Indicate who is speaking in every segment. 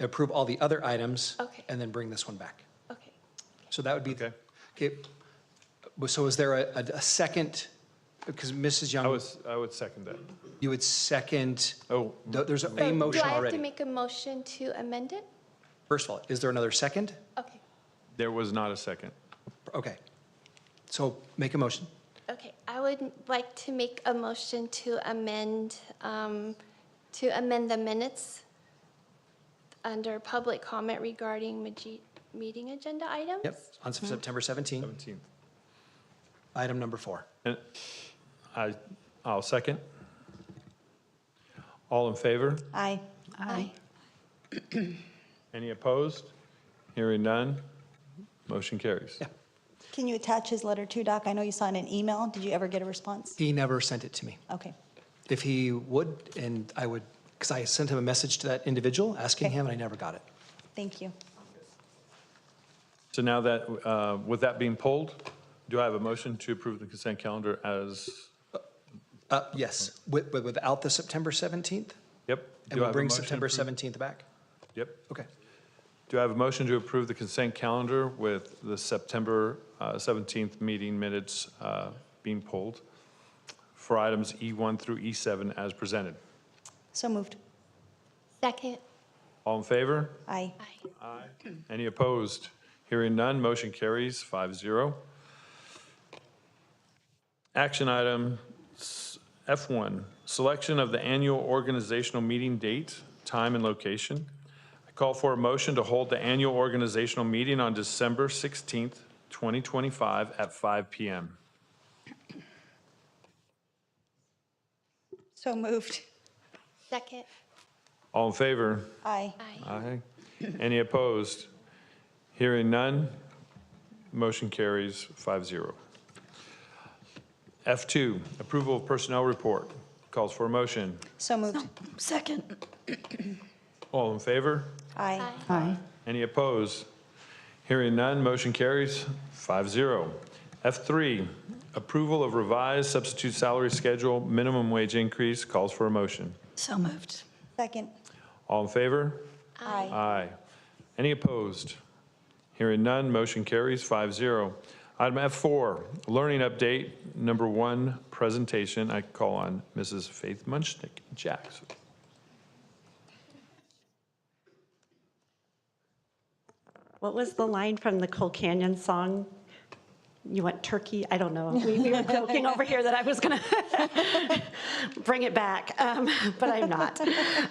Speaker 1: approve all the other items.
Speaker 2: Okay.
Speaker 1: And then bring this one back.
Speaker 2: Okay.
Speaker 1: So that would be.
Speaker 3: Okay.
Speaker 1: Okay, Well, so is there a, a- a second, because Mrs.
Speaker 3: I
Speaker 1: Young,
Speaker 3: was, I would second that.
Speaker 1: you would second,
Speaker 3: Oh,
Speaker 1: th- there's
Speaker 2: So
Speaker 1: a motion
Speaker 2: Do I have to
Speaker 1: already.
Speaker 2: make a motion to amend it?
Speaker 1: First of all, is there another second?
Speaker 2: Okay,
Speaker 3: there was not a second.
Speaker 1: Okay. So make a motion.
Speaker 2: okay. I would like to make a motion to amend, um, to amend the minutes under public comment regarding maje- meeting agenda items?
Speaker 1: Yep, on
Speaker 2: Mm-hmm.
Speaker 1: Sep- September 17,
Speaker 3: 17th.
Speaker 1: item number four.
Speaker 3: And I, I'll second. All in favor?
Speaker 4: Aye.
Speaker 2: Aye.
Speaker 3: Any opposed? Hearing none, motion carries.
Speaker 1: Yeah.
Speaker 4: Can you attach his letter too, Doc? I know you signed an email. Did you ever get a response?
Speaker 1: He never sent it to me.
Speaker 4: Okay.
Speaker 1: If he would, and I would, because I sent him a message to that individual asking
Speaker 4: Okay.
Speaker 1: him, and I never got it.
Speaker 4: Thank you.
Speaker 3: So now that, uh, with that being polled, do I have a motion to approve the consent calendar as,
Speaker 1: Uh, yes, with, with- without the September 17th? And
Speaker 3: yep? do I
Speaker 1: we'll
Speaker 3: have a
Speaker 1: bring
Speaker 3: motion to
Speaker 1: September
Speaker 3: approve-
Speaker 1: 17th back?
Speaker 3: Yep.
Speaker 1: Okay.
Speaker 3: Do I have a motion to approve the consent calendar with the September uh, 17th meeting minutes uh, being pulled for items E1 through E7 as presented?
Speaker 4: So moved.
Speaker 2: Second.
Speaker 3: All in favor?
Speaker 4: Aye.
Speaker 2: Aye.
Speaker 3: Any opposed? Hearing none, motion carries 5-0. Action item s- F1, selection of the annual organizational meeting date, time, and location. I call for a motion to hold the annual organizational meeting on December 16th, 2025 at 5 PM.
Speaker 4: So moved.
Speaker 2: Second.
Speaker 3: All in favor?
Speaker 4: Aye.
Speaker 2: Aye.
Speaker 3: Aye. Any opposed? Hearing none, motion carries 5-0. F2, approval of personnel report. Calls for a motion.
Speaker 4: So moved.
Speaker 5: Second.
Speaker 3: All in favor?
Speaker 4: Aye.
Speaker 2: Aye.
Speaker 5: Aye.
Speaker 3: Any opposed? Hearing none, motion carries 5-0. F3, approval of revised substitute salary schedule, minimum wage increase. Calls for a motion.
Speaker 5: So moved.
Speaker 4: Second.
Speaker 3: All in favor?
Speaker 4: Aye.
Speaker 3: Aye. Any opposed? Hearing none, motion carries 5-0. Item F4, learning update, number one, presentation. I call on Mrs. Faith Munchnick Jackson.
Speaker 6: What was the line from the Cole Canyon song? You want turkey? I don't know. We we were joking over here that I was going to bring it back, um, but I'm not.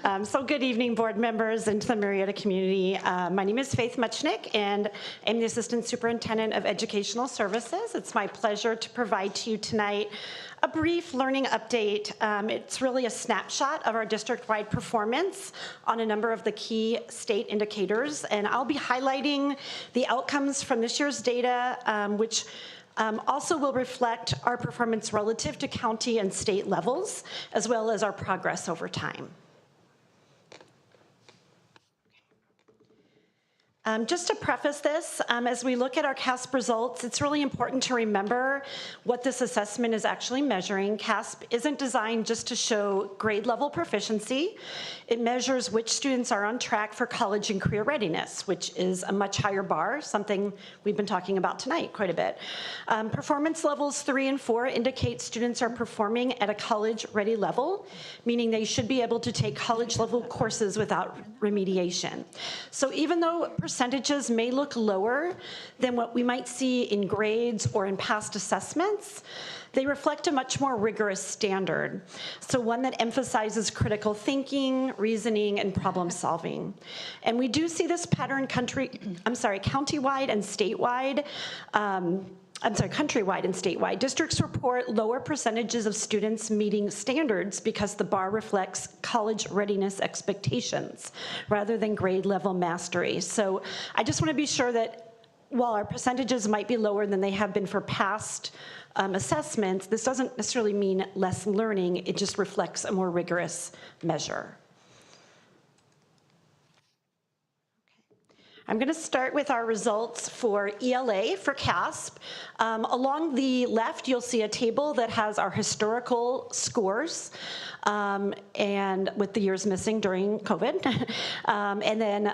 Speaker 6: Um, So good evening, board members and to the Marietta community. Uh, My name is Faith Muchnick, and I'm the Assistant Superintendent of Educational Services. It's my pleasure to provide to you tonight a brief learning update. Um, It's really a snapshot of our district-wide performance on a number of the key state indicators, and I'll be highlighting the outcomes from this year's data, um, which um, also will reflect our performance relative to county and state levels, as well as our progress over time. Um, just to preface this, um, as we look at our CASP results, it's really important to remember what this assessment is actually measuring. CASP isn't designed just to show grade level proficiency. It measures which students are on track for college and career readiness, which is a much higher bar, something we've been talking about tonight quite a bit. Um, performance levels three and four indicate students are performing at a college-ready level, meaning they should be able to take college-level courses without remediation. So even though percentages may look lower than what we might see in grades or in past assessments, they reflect a much more rigorous standard. So one that emphasizes critical thinking, reasoning, and problem solving. And we do see this pattern country, I'm sorry, countywide and statewide. um, I'm sorry, countrywide and statewide. Districts report lower percentages of students meeting standards because the bar reflects college readiness expectations rather than grade level mastery. So I just want to be sure that while our percentages might be lower than they have been for past um, assessments, this doesn't necessarily mean less learning. It just reflects a more rigorous measure. I'm going to start with our results for ELA for CASP. Um, Along the left, you'll see a table that has our historical scores um, and with the years missing during COVID. Um, And then